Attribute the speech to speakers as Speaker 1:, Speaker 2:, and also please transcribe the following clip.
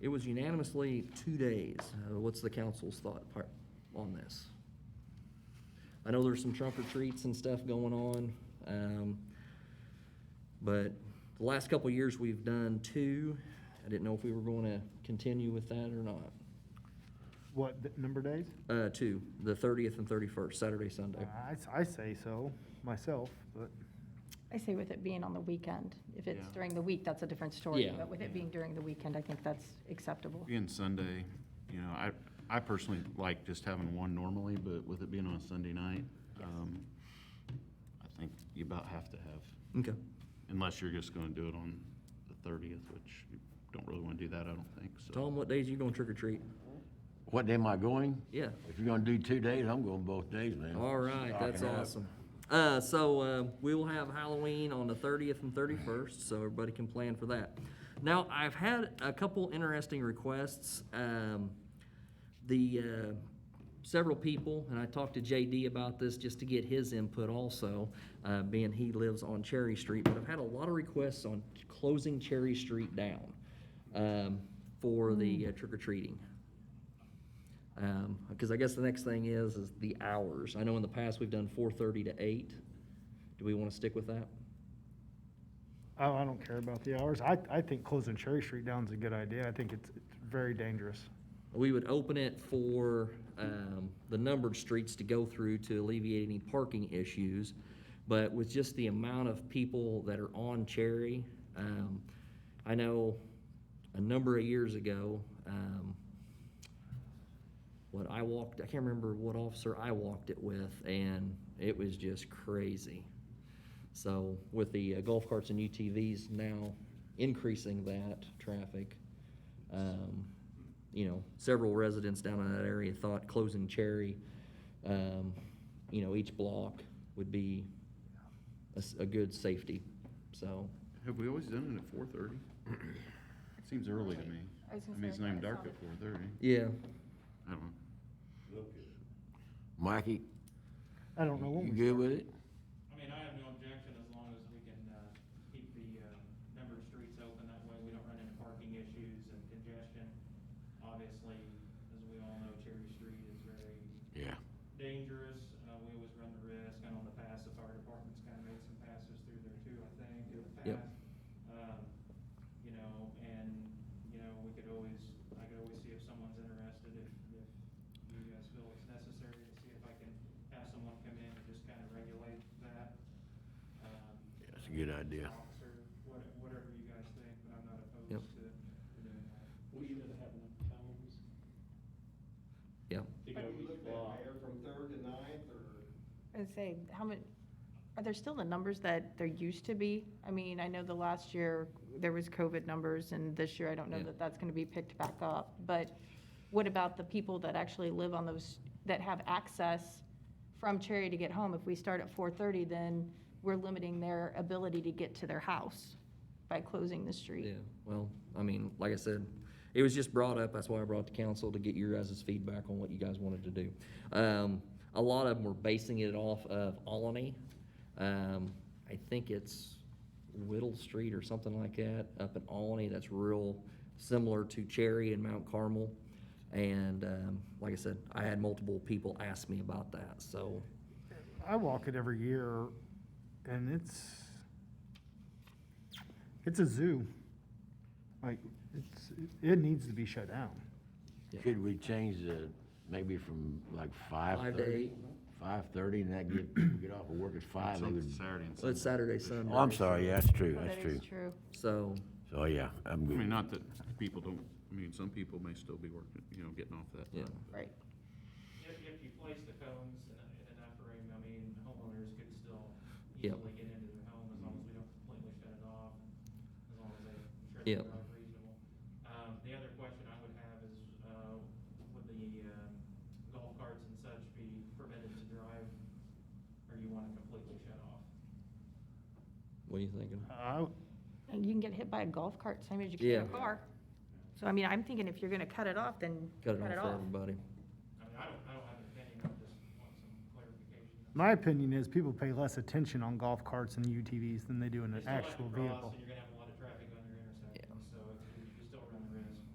Speaker 1: It was unanimously two days. Uh, What's the council's thought part on this? I know there's some trunk or treats and stuff going on, um, but the last couple of years, we've done two. I didn't know if we were going to continue with that or not.
Speaker 2: What, th- number of days?
Speaker 1: Uh, two, the thirtieth and thirty-first, Saturday, Sunday.
Speaker 2: I, s- I say so, myself, but
Speaker 3: I say with it being on the weekend. If it's
Speaker 4: Yeah.
Speaker 3: during the week, that's a different story.
Speaker 1: Yeah.
Speaker 3: But with it being during the weekend, I think that's acceptable.
Speaker 4: Being Sunday, you know, I, I personally like just having one normally, but with it being on a Sunday night, um, I think you about have to have,
Speaker 1: Okay.
Speaker 4: unless you're just gonna do it on the thirtieth, which you don't really wanna do that, I don't think, so.
Speaker 1: Tom, what days you going trick or treat?
Speaker 5: What day am I going?
Speaker 1: Yeah.
Speaker 5: If you're gonna do two days, I'm going both days, man.
Speaker 1: All right, that's
Speaker 5: Stocking up.
Speaker 1: awesome. Uh, so, uh, we will have Halloween on the thirtieth and thirty-first, so everybody can plan for that. Now, I've had a couple interesting requests, um, the, uh, several people, and I talked to JD about this just to get his input also, uh, being he lives on Cherry Street, but I've had a lot of requests on closing Cherry Street down, um, for the uh, trick or treating. Um, because I guess the next thing is, is the hours. I know in the past we've done four thirty to eight. Do we wanna stick with that?
Speaker 2: I, I don't care about the hours. I, I think closing Cherry Street down's a good idea. I think it's, it's very dangerous.
Speaker 1: We would open it for, um, the numbered streets to go through to alleviate any parking issues. But with just the amount of people that are on Cherry, um, I know a number of years ago, um, what I walked, I can't remember what officer I walked it with, and it was just crazy. So with the uh, golf carts and UTVs now increasing that traffic, um, you know, several residents down in that area thought closing Cherry, um, you know, each block would be a, s- a good safety, so.
Speaker 4: Have we always done it at four thirty? Seems early to me.
Speaker 3: I was gonna
Speaker 4: I mean,
Speaker 3: say,
Speaker 4: it's
Speaker 3: I
Speaker 4: not even
Speaker 3: thought I
Speaker 4: dark
Speaker 3: saw
Speaker 4: at four thirty.
Speaker 1: Yeah,
Speaker 4: I don't know.
Speaker 5: Mikey,
Speaker 2: I don't know when
Speaker 5: you
Speaker 2: we
Speaker 5: good with it?
Speaker 6: I mean, I have no objection as long as we can, uh, keep the, uh, number of streets open, that way we don't run into parking issues and congestion. Obviously, as we all know, Cherry Street is very
Speaker 5: Yeah.
Speaker 6: dangerous, uh, we always run the risk, I know in the past, the fire department's kinda made some passes through there too, I think, in the
Speaker 1: Yep.
Speaker 6: past. Um, you know, and, you know, we could always, I could always see if someone's interested, if, if you guys feel it's necessary, to see if I can have someone come in and just kinda regulate that. Um,
Speaker 5: Yeah, that's a good idea.
Speaker 6: Officer, what- whatever you guys think, but I'm not
Speaker 1: Yep.
Speaker 6: opposed to to doing that.
Speaker 7: We should have enough times
Speaker 1: yeah.
Speaker 7: to go each block.
Speaker 3: I'd say, how many, are there still the numbers that there used to be? I mean, I know the last year, there was COVID numbers, and this year, I don't know
Speaker 1: Yeah.
Speaker 3: that that's gonna be picked back up. But what about the people that actually live on those, that have access from Cherry to get home? If we start at four-thirty, then we're limiting their ability to get to their house by closing the street.
Speaker 1: Yeah, well, I mean, like I said, it was just brought up, that's why I brought the council to get your guys' feedback on what you guys wanted to do. Um, a lot of them were basing it off of Alany. Um, I think it's Whittle Street or something like that, up in Alany, that's real similar to Cherry and Mount Carmel. And, um, like I said, I had multiple people ask me about that, so,
Speaker 2: I walk it every year, and it's, it's a zoo. Like, it's, it needs to be shut down.
Speaker 5: Could we change the, maybe from like five
Speaker 1: Five
Speaker 5: thirty?
Speaker 1: to eight.
Speaker 5: Five thirty and that get, people get off of work at five, they would.
Speaker 4: Something Saturday and
Speaker 1: well,
Speaker 4: Sunday.
Speaker 1: it's Saturday, Sunday.
Speaker 5: Oh, I'm sorry, yeah, that's true,
Speaker 3: Well,
Speaker 5: that's
Speaker 3: That
Speaker 5: true.
Speaker 3: is true.
Speaker 1: So,
Speaker 5: So, yeah, I'm
Speaker 4: I mean,
Speaker 5: good.
Speaker 4: not that people don't, I mean, some people may still be working, you know, getting off that
Speaker 1: Yeah.
Speaker 4: time.
Speaker 3: Right.
Speaker 6: If, if you place the cones in a- in enough room, I mean, homeowners could still
Speaker 1: Yep.
Speaker 6: easily get into their home as long as we don't completely shut it off, as long as they, I'm sure
Speaker 1: Yep.
Speaker 6: they're not reasonable. Um, the other question I would have is, uh, would the, um, golf carts and such be permitted to drive? Or you wanna completely shut off?
Speaker 1: what are you thinking?
Speaker 2: I,
Speaker 3: And you can get hit by a golf cart same as you can a
Speaker 1: Yeah.
Speaker 3: car. So I mean, I'm thinking if you're gonna cut it off, then
Speaker 1: Cut it off for everybody.
Speaker 6: I mean, I don't, I don't have an opinion, I just want some clarification.
Speaker 2: my opinion is people pay less attention on golf carts and UTVs than they do in
Speaker 6: They
Speaker 2: an
Speaker 6: still have to
Speaker 2: actual
Speaker 6: cross,
Speaker 2: vehicle.
Speaker 6: And you're